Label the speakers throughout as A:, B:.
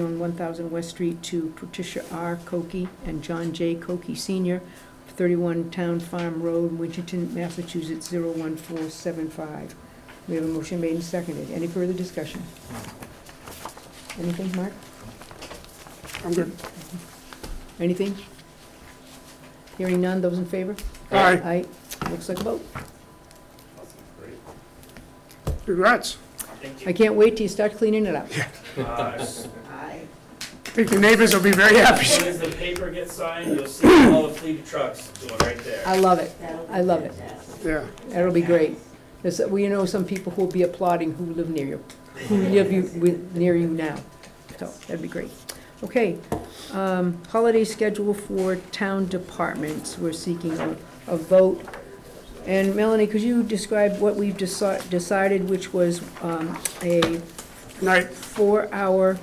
A: on 1,000 West Street to Patricia R. Cokie and John J. Cokie Sr., 31 Town Farm Road, Winchton, Massachusetts, 01475. We have a motion made and seconded. Any further discussion? Anything, Mark?
B: I'm good.
A: Anything? Hearing none, those in favor?
B: Aye.
A: Aye. Looks like a vote.
B: Congrats.
A: I can't wait till you start cleaning it up.
C: As
B: I think your neighbors will be very happy.
C: soon as the paper gets signed, you'll see all the fleet of trucks doing right there.
A: I love it. I love it.
B: Yeah.
A: That'll be great. There's, we know some people who'll be applauding who live near you, who live you, with, near you now. So, that'd be great. Okay, um, holiday schedule for town departments, we're seeking a, a vote. And Melanie, could you describe what we've deci- decided, which was, um, a
B: Night.
A: four-hour,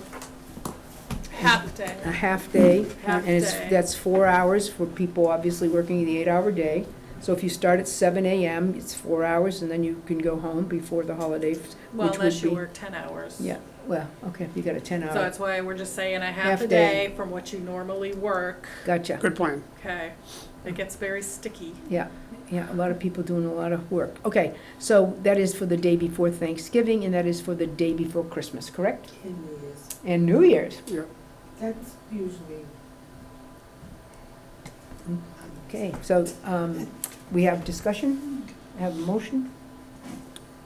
D: Half day.
A: a half day?
D: Half
A: And it's,
D: day.
A: that's four hours for people obviously working the eight-hour day. So if you start at seven AM, it's four hours, and then you can go home before the holiday, which
D: Well, unless
A: would
D: you
A: be-
D: work ten hours.
A: Yeah, well, okay, you got a ten
D: So
A: hour,
D: that's why we're just saying a
A: Half
D: half a
A: day.
D: day from what you normally work,
A: gotcha,
B: Good plan.
D: okay? It gets very sticky.
A: yeah, yeah, a lot of people doing a lot of work. Okay, so that is for the day before Thanksgiving, and that is for the day before Christmas, correct?
E: Ten years.
A: And New Year's,
E: That's usually.
A: okay, so, um, we have discussion, have a motion,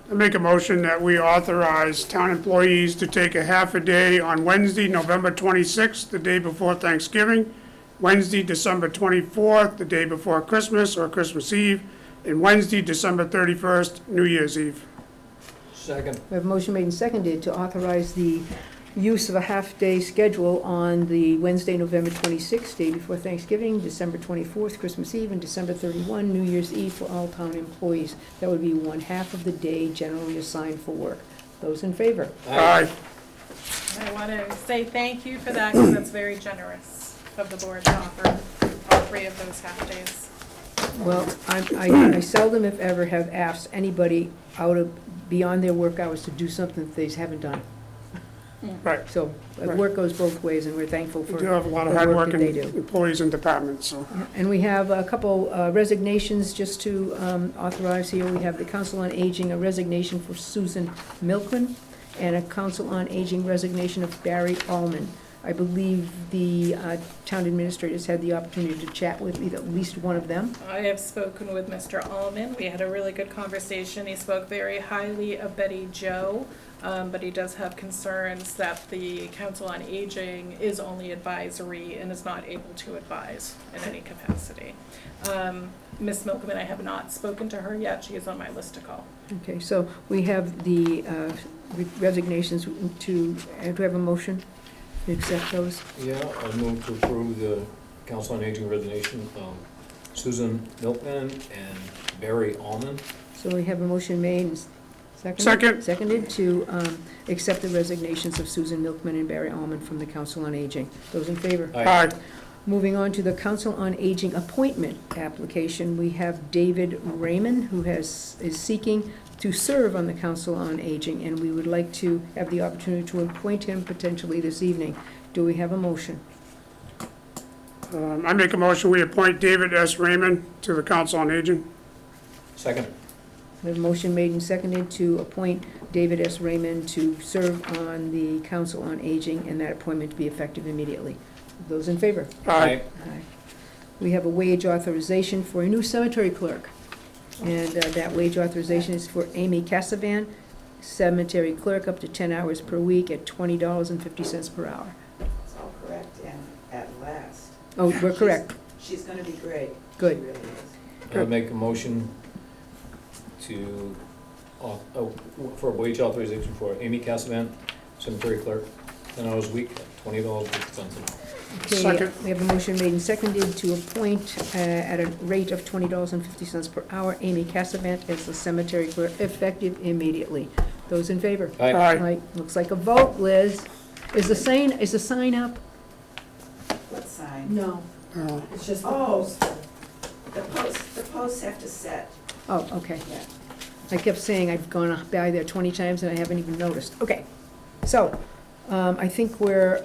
B: I make a motion that we authorize town employees to take a half a day on Wednesday, November 26th, the day before Thanksgiving, Wednesday, December 24th, the day before Christmas or Christmas Eve, and Wednesday, December 31st, New Year's Eve.
F: Second.
A: we have a motion made and seconded to authorize the use of a half-day schedule on the Wednesday, November twenty-sixth, day before Thanksgiving, December twenty-fourth, Christmas Eve, and December thirty-one, New Year's Eve for all town employees. That would be one half of the day generally assigned for work. Those in favor?
B: Aye.
D: I want to say thank you for that because that's very generous of the board to offer all three of those half days.
A: Well, I'm- I I seldom, if ever, have asked anybody out of, beyond their work hours to do something that they haven't done.
B: Right.
A: So, uh, work goes both ways, and we're thankful
B: We
A: for
B: do have a lot of
A: the work that
B: hardworking
A: they do.
B: employees and departments, so.
A: And we have a couple uh, resignations just to um, authorize here. We have the Council on Aging, a resignation for Susan Milkman, and a Council on Aging resignation of Barry Allman. I believe the uh, town administrators had the opportunity to chat with either- at least one of them.
D: I have spoken with Mr. Alman. We had a really good conversation. He spoke very highly of Betty Jo, um, but he does have concerns that the Council on Aging is only advisory and is not able to advise in any capacity. Um, Ms. Milkman, I have not spoken to her yet. She is on my list to call.
A: Okay, so we have the uh, resignations to, do we have a motion to accept those?
F: Yeah, I move to approve the Council on Aging resignation of Susan Milkman and Barry Almond.
A: So we have a motion made and seconded.
B: Second.
A: Seconded to um, accept the resignations of Susan Milkman and Barry Almond from the Council on Aging. Those in favor?
B: Aye.
A: Moving on to the Council on Aging appointment application, we have David Raymond, who has, is seeking to serve on the Council on Aging, and we would like to have the opportunity to appoint him potentially this evening. Do we have a motion?
B: Um, I make a motion, we appoint David S. Raymond to the Council on Aging.
F: Second.
A: We have a motion made and seconded to appoint David S. Raymond to serve on the Council on Aging, and that appointment to be effective immediately. Those in favor?
B: Aye.
A: Aye. We have a wage authorization for a new cemetery clerk, and uh, that wage authorization is for Amy Cassavan, cemetery clerk, up to 10 hours per week at $20.50 per hour.
E: It's all correct and at last.
A: Oh, we're correct.
E: She's gonna be great. She
A: Good.
E: really is.
F: I would make a motion to, au- oh, for wage authorization for Amy Cassavant, cemetery clerk, ten hours a week, twenty dollars an hour.
A: Okay,
B: Second.
A: we have a motion made and seconded to appoint uh, at a rate of twenty dollars and fifty cents per hour Amy Cassavant as the cemetery clerk, effective immediately. Those in favor?
F: Aye.
A: Right, Looks like a vote, Liz. Is the sign, is the sign up?
E: What sign?
G: No,
B: Uh,
G: it's just the
E: Oh,
G: post.
E: the posts, the posts have to set,
A: Oh, okay.
E: yeah.
A: I kept saying I've gone by there twenty times and I haven't even noticed. Okay, so, um, I think we're